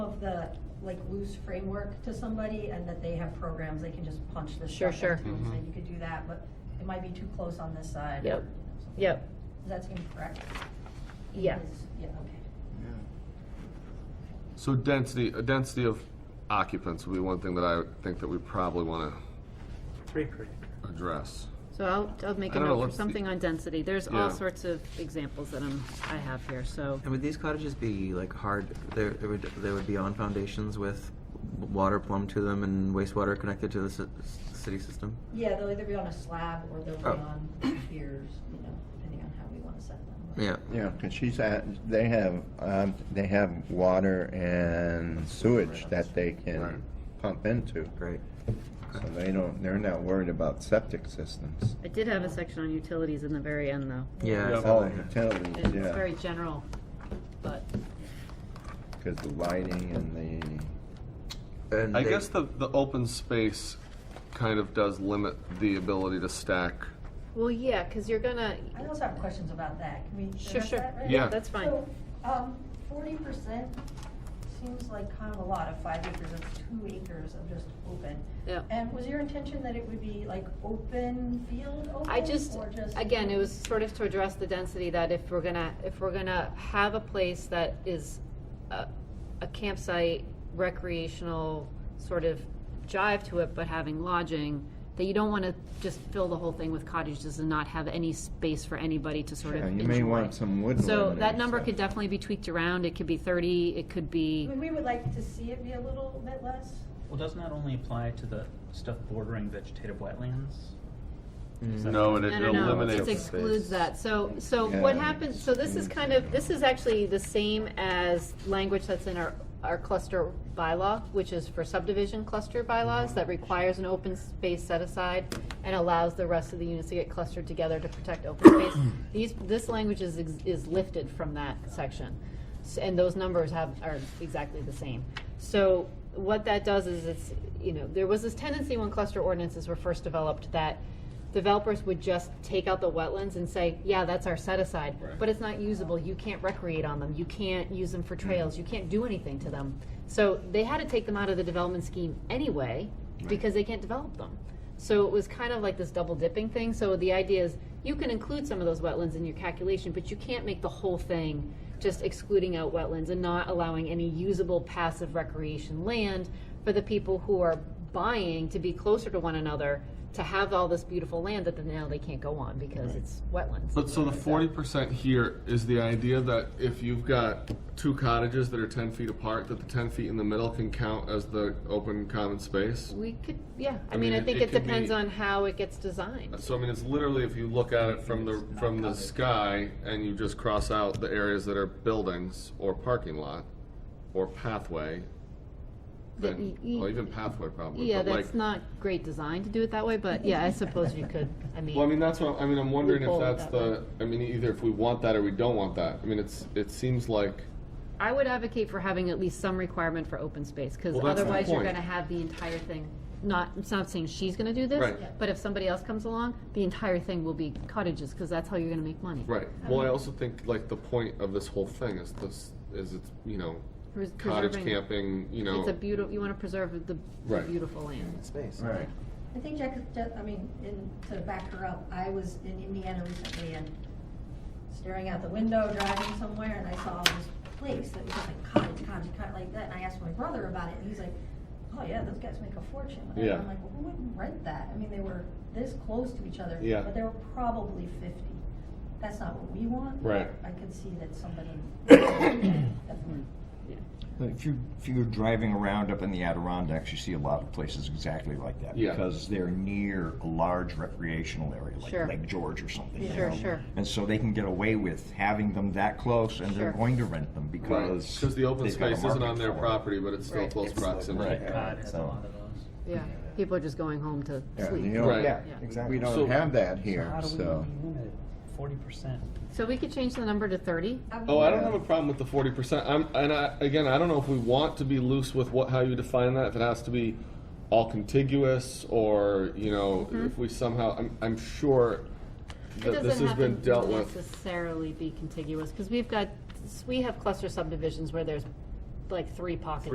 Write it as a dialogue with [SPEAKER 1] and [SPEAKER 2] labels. [SPEAKER 1] the, like, loose framework to somebody and that they have programs, they can just punch this
[SPEAKER 2] Sure,
[SPEAKER 1] stuff
[SPEAKER 2] sure.
[SPEAKER 1] into and say,
[SPEAKER 3] Mm-hmm.
[SPEAKER 4] Mhm.
[SPEAKER 1] you could do that, but it might be too close on this side.
[SPEAKER 2] Yep. Yep,
[SPEAKER 1] Does that seem correct?
[SPEAKER 2] Yeah.
[SPEAKER 1] Is- Yeah, okay.
[SPEAKER 4] So density, uh, density of occupants would be one thing that I think that we probably want
[SPEAKER 5] Three per acre.
[SPEAKER 4] to address.
[SPEAKER 2] so I'll, I'll make
[SPEAKER 4] I
[SPEAKER 2] a
[SPEAKER 4] don't
[SPEAKER 2] note
[SPEAKER 4] know,
[SPEAKER 2] for
[SPEAKER 4] what's the-
[SPEAKER 2] something on density. There's
[SPEAKER 4] Yeah.
[SPEAKER 2] all sorts of examples that I'm, I have here, so.
[SPEAKER 3] And would these cottages be like hard? There, there would there would be on foundations with water plumbed to them and wastewater connected to the ci- city system.
[SPEAKER 1] Yeah, they'll either be on a slab or they'll be
[SPEAKER 3] Oh.
[SPEAKER 1] on piers, you know, depending on how we want to set them. up.
[SPEAKER 3] Yeah.
[SPEAKER 6] Yeah, because she's at, they have, um, they have water and sewage that they can
[SPEAKER 4] Right.
[SPEAKER 6] pump into.
[SPEAKER 3] Great.
[SPEAKER 6] So they don't, they're not worried about septic systems.
[SPEAKER 2] I did have a section on utilities in the very end, though.
[SPEAKER 3] Yeah. I
[SPEAKER 4] Yeah.
[SPEAKER 3] saw
[SPEAKER 6] Oh,
[SPEAKER 3] that.
[SPEAKER 2] It's
[SPEAKER 6] utilities, yeah,
[SPEAKER 2] very general, but,
[SPEAKER 6] because the lighting and the.
[SPEAKER 3] And
[SPEAKER 4] I
[SPEAKER 3] they-
[SPEAKER 4] guess the, the open space kind of does limit the ability to stack.
[SPEAKER 2] well, yeah, because you're gonna,
[SPEAKER 1] I also have questions about that. Can we
[SPEAKER 2] sure,
[SPEAKER 1] address
[SPEAKER 2] sure,
[SPEAKER 1] that right
[SPEAKER 4] Yeah.
[SPEAKER 2] yeah, that's fine.
[SPEAKER 1] So, um, forty percent seems like kind of a lot of five acres, that's two acres of just open.
[SPEAKER 2] Yeah.
[SPEAKER 1] And was your intention that it would be like open field, open?
[SPEAKER 2] I just,
[SPEAKER 1] or
[SPEAKER 2] again, it was sort of to address the density that if we're gonna, if we're gonna have a place that is a, a campsite, recreational sort of jive to it, but having lodging, that you don't wanna just fill the whole thing with cottages and not have any space for anybody to sort of
[SPEAKER 6] Yeah,
[SPEAKER 2] enjoy.
[SPEAKER 6] you may want some woodland.
[SPEAKER 2] So
[SPEAKER 6] or
[SPEAKER 2] that number
[SPEAKER 6] something.
[SPEAKER 2] could definitely be tweaked around, it could be thirty, it could
[SPEAKER 1] I
[SPEAKER 2] be,
[SPEAKER 1] mean, we would like to see it be a little bit less.
[SPEAKER 5] Well, doesn't that only apply to the stuff bordering vegetative wetlands? Is that-
[SPEAKER 4] No, and it
[SPEAKER 2] I don't know,
[SPEAKER 4] eliminates.
[SPEAKER 2] it excludes that, so, so
[SPEAKER 6] Yeah,
[SPEAKER 2] what happens,
[SPEAKER 6] it's-
[SPEAKER 2] so this is kind of, this is actually the same as language that's in our, our cluster bylaw, which is for subdivision cluster bylaws, that requires an open space set aside and allows the rest of the units to get clustered together to protect open space. These, this language is, ex- is lifted from that section, S- and those numbers have, are exactly the same. So what that does is it's, you know, there was this tendency when cluster ordinances were first developed that developers would just take out the wetlands and say, yeah, that's our set aside, but it's not usable, you can't recreate on them, you can't use them for trails, you can't do anything to them. So they had to take them out of the development scheme anyway, because they can't develop them. So it was kind of like this double dipping thing, so the idea is, you can include some of those wetlands in your calculation, but you can't make the whole thing just excluding out wetlands and not allowing any usable passive recreation land for the people who are buying to be closer to one another, to have all this beautiful land that then now they can't go on because it's wetlands.
[SPEAKER 4] But so the forty percent here is the idea that if you've got two cottages that are ten feet apart, that the ten feet in the middle can count as the open common space?
[SPEAKER 2] We could, yeah, I
[SPEAKER 4] I
[SPEAKER 2] mean,
[SPEAKER 4] mean,
[SPEAKER 2] I
[SPEAKER 4] it-
[SPEAKER 2] think
[SPEAKER 4] it
[SPEAKER 2] it
[SPEAKER 4] could
[SPEAKER 2] depends
[SPEAKER 4] be-
[SPEAKER 2] on how it gets designed.
[SPEAKER 4] So I mean, it's literally if you look at it from the, from the sky and you just cross out the areas that are buildings or parking lot or pathway,
[SPEAKER 2] That
[SPEAKER 4] then,
[SPEAKER 2] y- y-
[SPEAKER 4] well, even pathway probably,
[SPEAKER 2] Yeah,
[SPEAKER 4] but like-
[SPEAKER 2] that's not great design to do it that way, but yeah, I suppose you could, I mean.
[SPEAKER 4] Well, I mean, that's what, I mean, I'm wondering if
[SPEAKER 2] Loophole
[SPEAKER 4] that's
[SPEAKER 2] that
[SPEAKER 4] the, I mean, either if we want that or we don't want that. I mean, it's, it seems like,
[SPEAKER 2] I would advocate for having at least some requirement for open space, because
[SPEAKER 4] Well, that's the
[SPEAKER 2] otherwise you're
[SPEAKER 4] point.
[SPEAKER 2] gonna have the entire thing, not, it's not saying she's gonna do this,
[SPEAKER 4] Right.
[SPEAKER 2] but if somebody else comes along, the entire thing will be cottages, because that's how you're gonna make money.
[SPEAKER 4] right. Well, I also think like the point of this whole thing is this, is it's, you know,
[SPEAKER 2] Pres-
[SPEAKER 4] cottage
[SPEAKER 2] preserving-
[SPEAKER 4] camping, you know.
[SPEAKER 2] It's a beautiful, you wanna preserve the the
[SPEAKER 4] Right.
[SPEAKER 2] beautiful land.
[SPEAKER 3] space.
[SPEAKER 6] Right.
[SPEAKER 1] I think Jack, Jack- I mean, in, to back her up, I was in Indiana recently and staring out the window, driving somewhere, and I saw this place that was like cottage, cottage, cottage, like that, and I asked my brother about it, and he's like, oh yeah, those guys make a fortune. And
[SPEAKER 4] Yeah.
[SPEAKER 1] I'm like, well, who wouldn't rent that? I mean, they were this close to each other.
[SPEAKER 4] Yeah.
[SPEAKER 1] But they were probably fifty. That's not what we want.
[SPEAKER 4] Right.
[SPEAKER 1] I could see that somebody.
[SPEAKER 2] Yeah.
[SPEAKER 7] If you, if you're driving around up in the Adirondacks, you see a lot of places exactly like that.
[SPEAKER 4] Yeah.
[SPEAKER 7] Because they're near a large recreational area,
[SPEAKER 2] Sure.
[SPEAKER 7] like Lake George or something. you
[SPEAKER 2] Sure,
[SPEAKER 7] know?
[SPEAKER 2] sure.
[SPEAKER 7] And so they can get away with having them that close, and
[SPEAKER 2] Sure.
[SPEAKER 7] they're going to rent them
[SPEAKER 4] Right,
[SPEAKER 7] because.
[SPEAKER 4] because the open
[SPEAKER 7] they've got a
[SPEAKER 4] space isn't
[SPEAKER 7] market
[SPEAKER 4] on their
[SPEAKER 7] for it.
[SPEAKER 4] property, but it's still
[SPEAKER 2] Right.
[SPEAKER 4] close proximity.
[SPEAKER 7] Right.
[SPEAKER 5] God, it's a
[SPEAKER 7] So-
[SPEAKER 5] lot of those.
[SPEAKER 2] Yeah, people are just going home to
[SPEAKER 6] Yeah, you
[SPEAKER 2] sleep.
[SPEAKER 6] don't-
[SPEAKER 4] Right.
[SPEAKER 7] Yeah,
[SPEAKER 2] Yeah.
[SPEAKER 7] exactly.
[SPEAKER 6] We
[SPEAKER 4] So-
[SPEAKER 6] don't have that here,
[SPEAKER 5] How do
[SPEAKER 6] so.
[SPEAKER 5] we limit it? Forty percent.
[SPEAKER 2] So we could change the number to thirty,
[SPEAKER 4] Oh, I don't have a problem with the forty percent. I'm, and I, again, I don't know if we want to be loose with what, how you define that, if it has to be all contiguous or, you know, if we somehow, I'm, I'm sure
[SPEAKER 2] Mm-hmm. It
[SPEAKER 4] that this
[SPEAKER 2] doesn't
[SPEAKER 4] has
[SPEAKER 2] have
[SPEAKER 4] been dealt
[SPEAKER 2] to
[SPEAKER 4] with.
[SPEAKER 2] necessarily be contiguous, because we've got, we have cluster subdivisions where there's like three pockets